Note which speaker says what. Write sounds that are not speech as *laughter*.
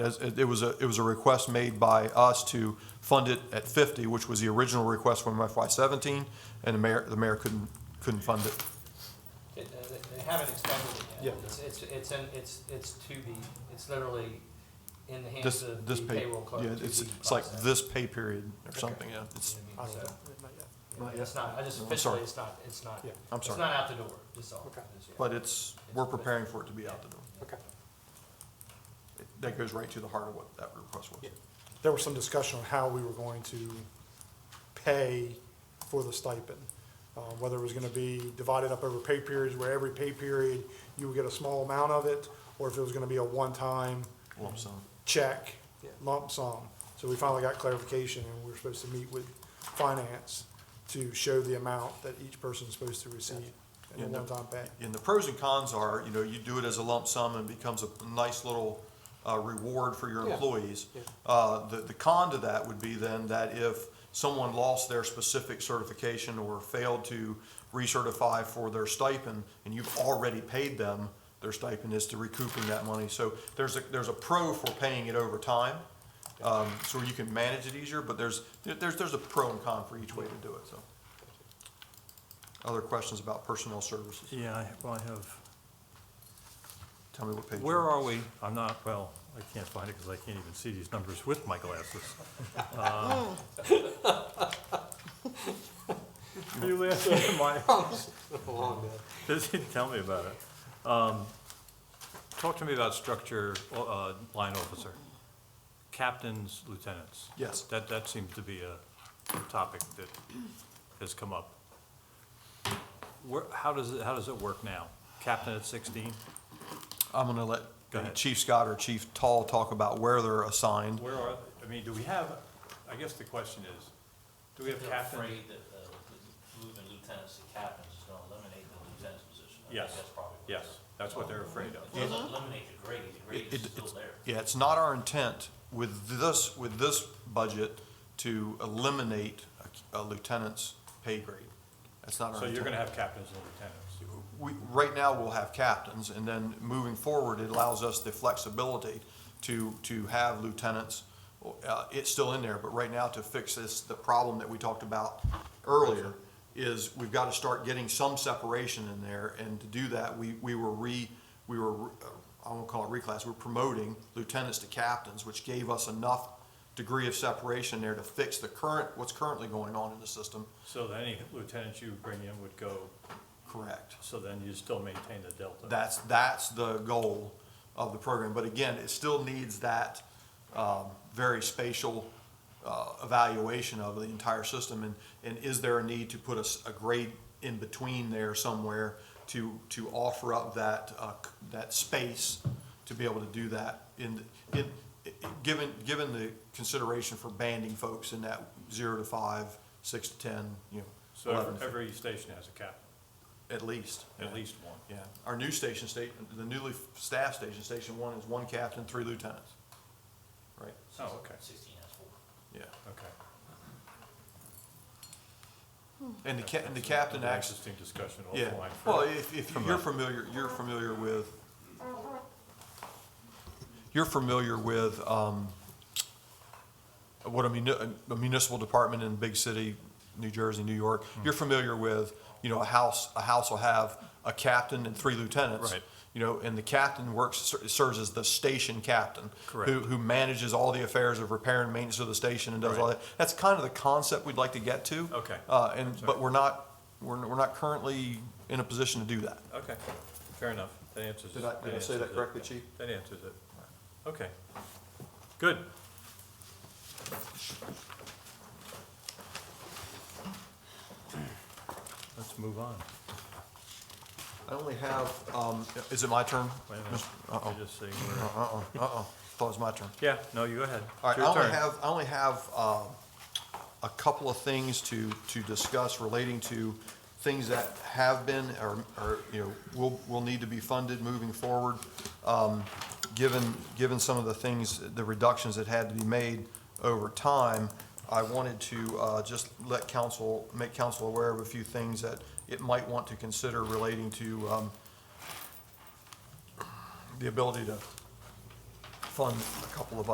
Speaker 1: As, it it was a, it was a request made by us to fund it at fifty, which was the original request from FY seventeen, and the mayor, the mayor couldn't, couldn't fund it.
Speaker 2: It- uh, They they haven't expended it yet.
Speaker 1: Yeah.
Speaker 2: It's, it's, it's, in- it's, it's to be, it's literally in the hands
Speaker 1: This,
Speaker 2: of
Speaker 1: this
Speaker 2: the
Speaker 1: pay,
Speaker 2: payroll clerk.
Speaker 1: yeah,
Speaker 2: to
Speaker 1: it's,
Speaker 2: be
Speaker 1: it's like
Speaker 2: processed.
Speaker 1: this pay period or something, yeah, it's,
Speaker 2: You know
Speaker 3: I
Speaker 2: what I
Speaker 3: don't
Speaker 2: mean?
Speaker 3: know.
Speaker 2: So,
Speaker 3: Not
Speaker 2: It's not, I just
Speaker 1: No, I'm
Speaker 2: officially,
Speaker 1: sorry.
Speaker 2: it's not, it's not,
Speaker 3: Yeah.
Speaker 1: I'm
Speaker 2: it's
Speaker 1: sorry.
Speaker 2: not out the door, that's all.
Speaker 3: Okay.
Speaker 2: It's- yeah.
Speaker 1: but it's, we're preparing for it to be out the door.
Speaker 3: Okay.
Speaker 1: That goes right to the heart of what that request was.
Speaker 3: Yeah. There was some discussion on how we were going to pay for the stipend. uh, Whether it was going to be divided up over pay periods, where every pay period you would get a small amount of it, or if it was going to be a one-time
Speaker 1: Lump sum.
Speaker 3: check, lump sum. So we finally got clarification, and we we're supposed to meet with finance to show the amount that each person's supposed to receive in a
Speaker 1: Yeah, no.
Speaker 3: one-time pay.
Speaker 1: And the pros and cons are, you know, you do it as a lump sum and becomes a nice little uh, reward for your
Speaker 3: Yeah.
Speaker 1: employees.
Speaker 3: Yeah.
Speaker 1: Uh, The, the con to that would be then that if someone lost their specific certification or failed to recertify for their stipend, and you've already paid them, their stipend is to recouping that money. So there's a, there's a pro for paying it over time, um, so you can manage it easier, but there's, there- there's, there's a pro and con for each way to do it, so. Other questions about personnel services?
Speaker 4: Yeah, I, well, I have,
Speaker 1: Tell me what page.
Speaker 4: where
Speaker 1: you're on.
Speaker 4: are we? I'm not, well, I can't find it because I can't even see these numbers with my glasses. Uh, You laughing *laughs* at my, Does he tell me about it? Um, Talk to me about structure, uh, line officer, captains, lieutenants.
Speaker 1: Yes.
Speaker 4: That, that seems to be a topic that has come up. Where, how does it, how does it work now? Captain at sixteen?
Speaker 1: I'm gonna let
Speaker 4: Go ahead.
Speaker 1: Chief Scott or Chief Tall talk about where they're assigned.
Speaker 4: Where are, I mean, do we have, I guess the question is, do we have
Speaker 5: They're
Speaker 4: captain?
Speaker 5: afraid that, uh, that moving lieutenants to captains is gonna eliminate the lieutenant's position. I think
Speaker 4: Yes,
Speaker 5: That's probably. what
Speaker 4: yes,
Speaker 5: it is.
Speaker 4: that's what they're afraid of.
Speaker 5: It doesn't eliminate the grade, the grade
Speaker 1: It-
Speaker 5: is
Speaker 1: it-
Speaker 5: still
Speaker 1: it's-
Speaker 5: there.
Speaker 1: Yeah, it's not our intent with this, with this budget to eliminate a a lieutenant's pay grade. That's not our
Speaker 4: So
Speaker 1: intent.
Speaker 4: you're gonna have captains and lieutenants.
Speaker 1: We, right now, we'll have captains, and then moving forward, it allows us the flexibility to, to have lieutenants. Uh, It's still in there, but right now, to fix this, the problem that we talked about earlier is we've got to start getting some separation in there, and to do that, we, we were re, we were, uh, I won't call it reclass, we're promoting lieutenants to captains, which gave us enough degree of separation there to fix the current, what's currently going on in the system.
Speaker 4: So then any lieutenants you bring in would go,
Speaker 1: Correct.
Speaker 4: so then you still maintain the delta.
Speaker 1: That's, that's the goal of the program. But again, it still needs that um, very spatial uh, evaluation of the entire system. And, and is there a need to put a, s- a grade in between there somewhere to, to offer up that, uh, c- that space to be able to do that in, in, given, given the consideration for banding folks in that zero to five, six to 10, you know,
Speaker 4: So
Speaker 1: 11,
Speaker 4: every- every station has a captain,
Speaker 1: at least.
Speaker 4: at
Speaker 1: Yeah.
Speaker 4: least one.
Speaker 1: Yeah, our new station state, the newly staffed station, station one is one captain, three lieutenants. Right,
Speaker 4: Oh, okay,
Speaker 5: Sixteen has four.
Speaker 1: yeah.
Speaker 4: okay.
Speaker 1: And the ca- and the captain
Speaker 4: That's an
Speaker 1: acts,
Speaker 4: Interesting discussion
Speaker 1: yeah,
Speaker 4: offline. for-
Speaker 1: well, if, if you're familiar, you're familiar with, you're familiar with, um, what a muni- a municipal department in big city, New Jersey, New York,
Speaker 4: Hmm.
Speaker 1: you're familiar with, you know, a house, a house will have a captain and three lieutenants.
Speaker 4: Right.
Speaker 1: You know, and the captain works, ser- serves as the station captain.
Speaker 4: Correct.
Speaker 1: Who, who manages all the affairs of repair and maintenance of the station and does all
Speaker 4: Right.
Speaker 1: that. That's kind of the concept we'd like to get to.
Speaker 4: Okay.
Speaker 1: Uh, and,
Speaker 4: sorry.
Speaker 1: but we're not, we're, we're not currently in a position to do that.
Speaker 4: Okay, fair enough, that answers.
Speaker 1: Did I- did I say
Speaker 4: answers
Speaker 1: that
Speaker 4: it.
Speaker 1: correctly, Chief?
Speaker 4: That answers it. Okay, good. Let's move on.
Speaker 1: I only have, um, Uh-uh, is it my turn?
Speaker 4: Wait a minute.
Speaker 1: Mis-
Speaker 4: You're
Speaker 1: Uh-oh,
Speaker 4: just seeing where-
Speaker 1: uh-oh, uh-oh, *laughs* thought it was my turn.
Speaker 4: Yeah, no, you go ahead. It's
Speaker 1: All right, I
Speaker 4: your
Speaker 1: only
Speaker 4: turn.
Speaker 1: have, I only have, uh, a couple of things to, to discuss relating to things that have been or, or, you know, will, will need to be funded moving forward. Um, Given, given some of the things, the reductions that had to be made over time, I wanted to uh, just let council, make council aware of a few things that it might want to consider relating to um, the ability to fund a couple of